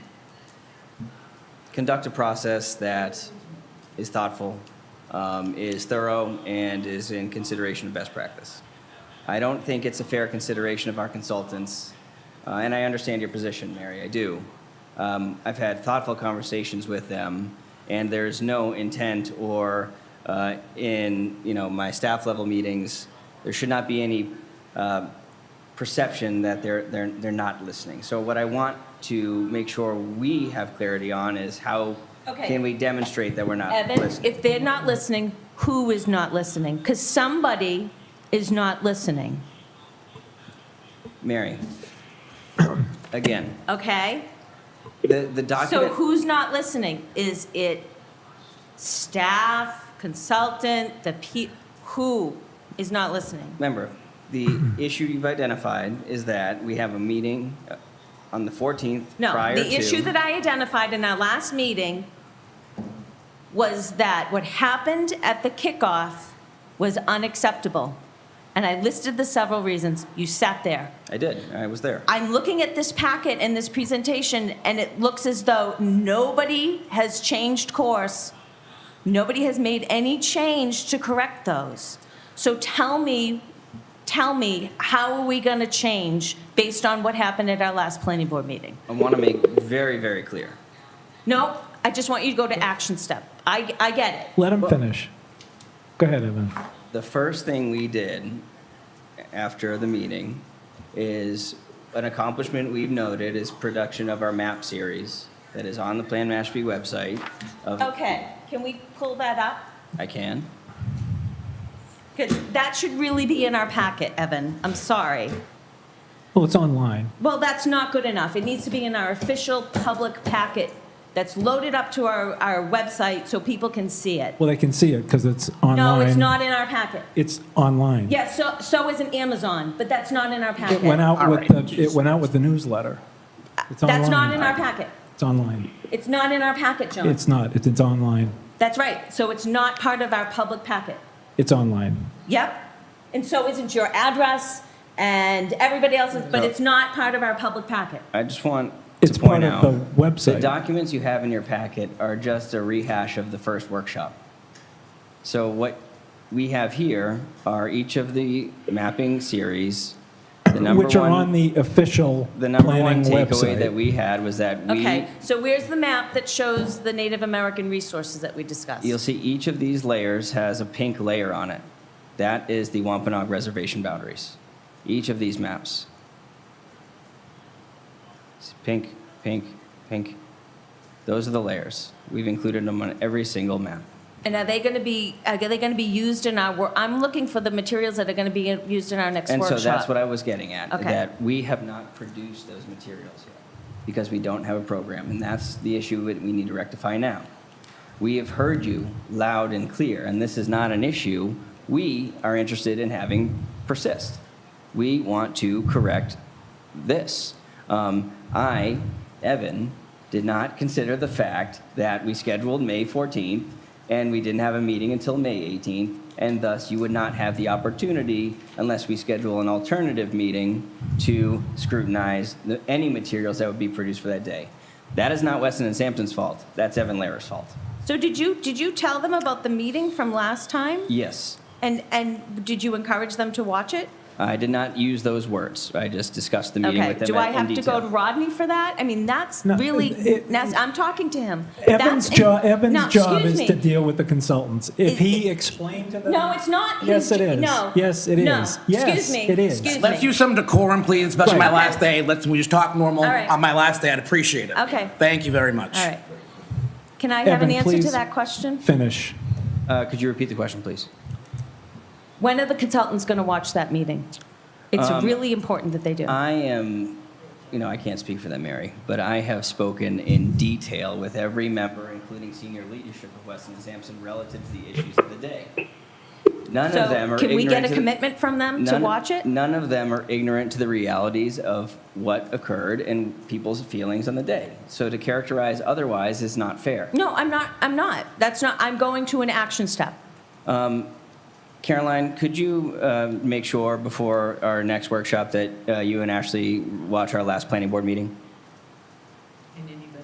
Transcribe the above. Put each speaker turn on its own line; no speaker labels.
conduct a process that is thoughtful, um, is thorough, and is in consideration of best practice. I don't think it's a fair consideration of our consultants, uh, and I understand your position, Mary, I do. Um, I've had thoughtful conversations with them, and there's no intent or uh, in you know my staff level meetings, there should not be any uh, perception that they're, they're, they're not listening. So what I want to make sure we have clarity on is how
Okay.
can we demonstrate that we're not
Evan,
listening?
if they're not listening, who is not listening? Because somebody is not listening,
Mary, again,
okay?
the, the
So
document,
who's not listening? Is it staff, consultant, the pe, who is not listening?
remember, the issue you've identified is that we have a meeting uh, on the 14th
No,
prior to.
the issue that I identified in our last meeting was that what happened at the kickoff was unacceptable. And I listed the several reasons. You sat there.
I did, I was there.
I'm looking at this packet and this presentation, and it looks as though nobody has changed course. Nobody has made any change to correct those. So tell me, tell me, how are we going to change based on what happened at our last planning board meeting?
I want to make very, very clear.
No, I just want you to go to action step. I, I get it.
Let him finish. Go ahead, Evan.
The first thing we did after the meeting is an accomplishment we've noted is production of our map series that is on the Plan Mashpee website. Of,
Okay, can we pull that up?
I can.
Because that should really be in our packet, Evan. I'm sorry.
Well, it's online.
Well, that's not good enough. It needs to be in our official public packet that's loaded up to our, our website so people can see it.
Well, they can see it because it's online.
No, it's not in our packet.
It's online.
Yeah, so, so is an Amazon, but that's not in our packet.
It went out with the, it went out with the newsletter. It's online.
That's not in our packet.
It's online.
It's not in our packet, John.
It's not, it's, it's online.
That's right. So it's not part of our public packet.
It's online.
Yep. And so isn't your address and everybody else's, but
No.
it's not part of our public packet.
I just want
It's
to point
part of
out
the website.
the documents you have in your packet are just a rehash of the first workshop. So what we have here are each of the mapping series. The number
Which are
one,
on the official
the number
planning
one takeaway
website.
that we had was that we
Okay, so where's the map that shows the Native American resources that we discussed?
You'll see each of these layers has a pink layer on it. That is the Wampanoag Reservation boundaries. Each of these maps. It's pink, pink, pink. Those are the layers. We've included them on every single map.
And are they going to be, are they going to be used in our, wor- I'm looking for the materials that are going to be used in our next
And
workshop.
so that's what I was getting at,
Okay.
that we have not produced those materials yet because we don't have a program. And that's the issue that we need to rectify now. We have heard you loud and clear, and this is not an issue we are interested in having persist. We want to correct this. Um, I, Evan, did not consider the fact that we scheduled May 14th and we didn't have a meeting until May 18th, and thus you would not have the opportunity, unless we schedule an alternative meeting, to scrutinize the, any materials that would be produced for that day. That is not Weston and Sampson's fault. That's Evan Lehrer's fault.
So did you, did you tell them about the meeting from last time?
Yes,
And, and did you encourage them to watch it?
I did not use those words. I just discussed the meeting
Okay,
with them
do
in-
I have
in
to go
detail.
to Rodney for that? I mean, that's
No,
really,
it-
that's, I'm talking to him.
Evan's
That's-
job, Evan's
No,
job
excuse
is
me.
to deal with the consultants. If
It-
he explained to them.
No, it's not.
Yes,
his
it
jo-
is.
No.
Yes, it
No.
is. Yes,
Excuse me.
it is.
Excuse
Let's
me.
use some decorum, please, especially my
Right.
last day. Let's, we just talk normal.
All right.
On my last day, I'd appreciate it.
Okay.
Thank you very much.
All right. Can I have an
Evan,
answer to
please.
that question?
Finish.
Uh, could you repeat the question, please?
When are the consultants going to watch that meeting? It's
Um,
really important that they do.
I am, you know, I can't speak for them, Mary, but I have spoken in detail with every member, including senior leadership of Weston and Sampson, relative to the issues of the day. None of them
So
are.
can we get
ignorant
a
to-
commitment from them to
none-
watch it?
None of them are ignorant to the realities of what occurred and people's feelings on the day. So to characterize otherwise is not fair.
No, I'm not, I'm not. That's not, I'm going to an action step.
Caroline, could you uh, make sure before our next workshop that uh, you and Ashley watch our last planning board meeting?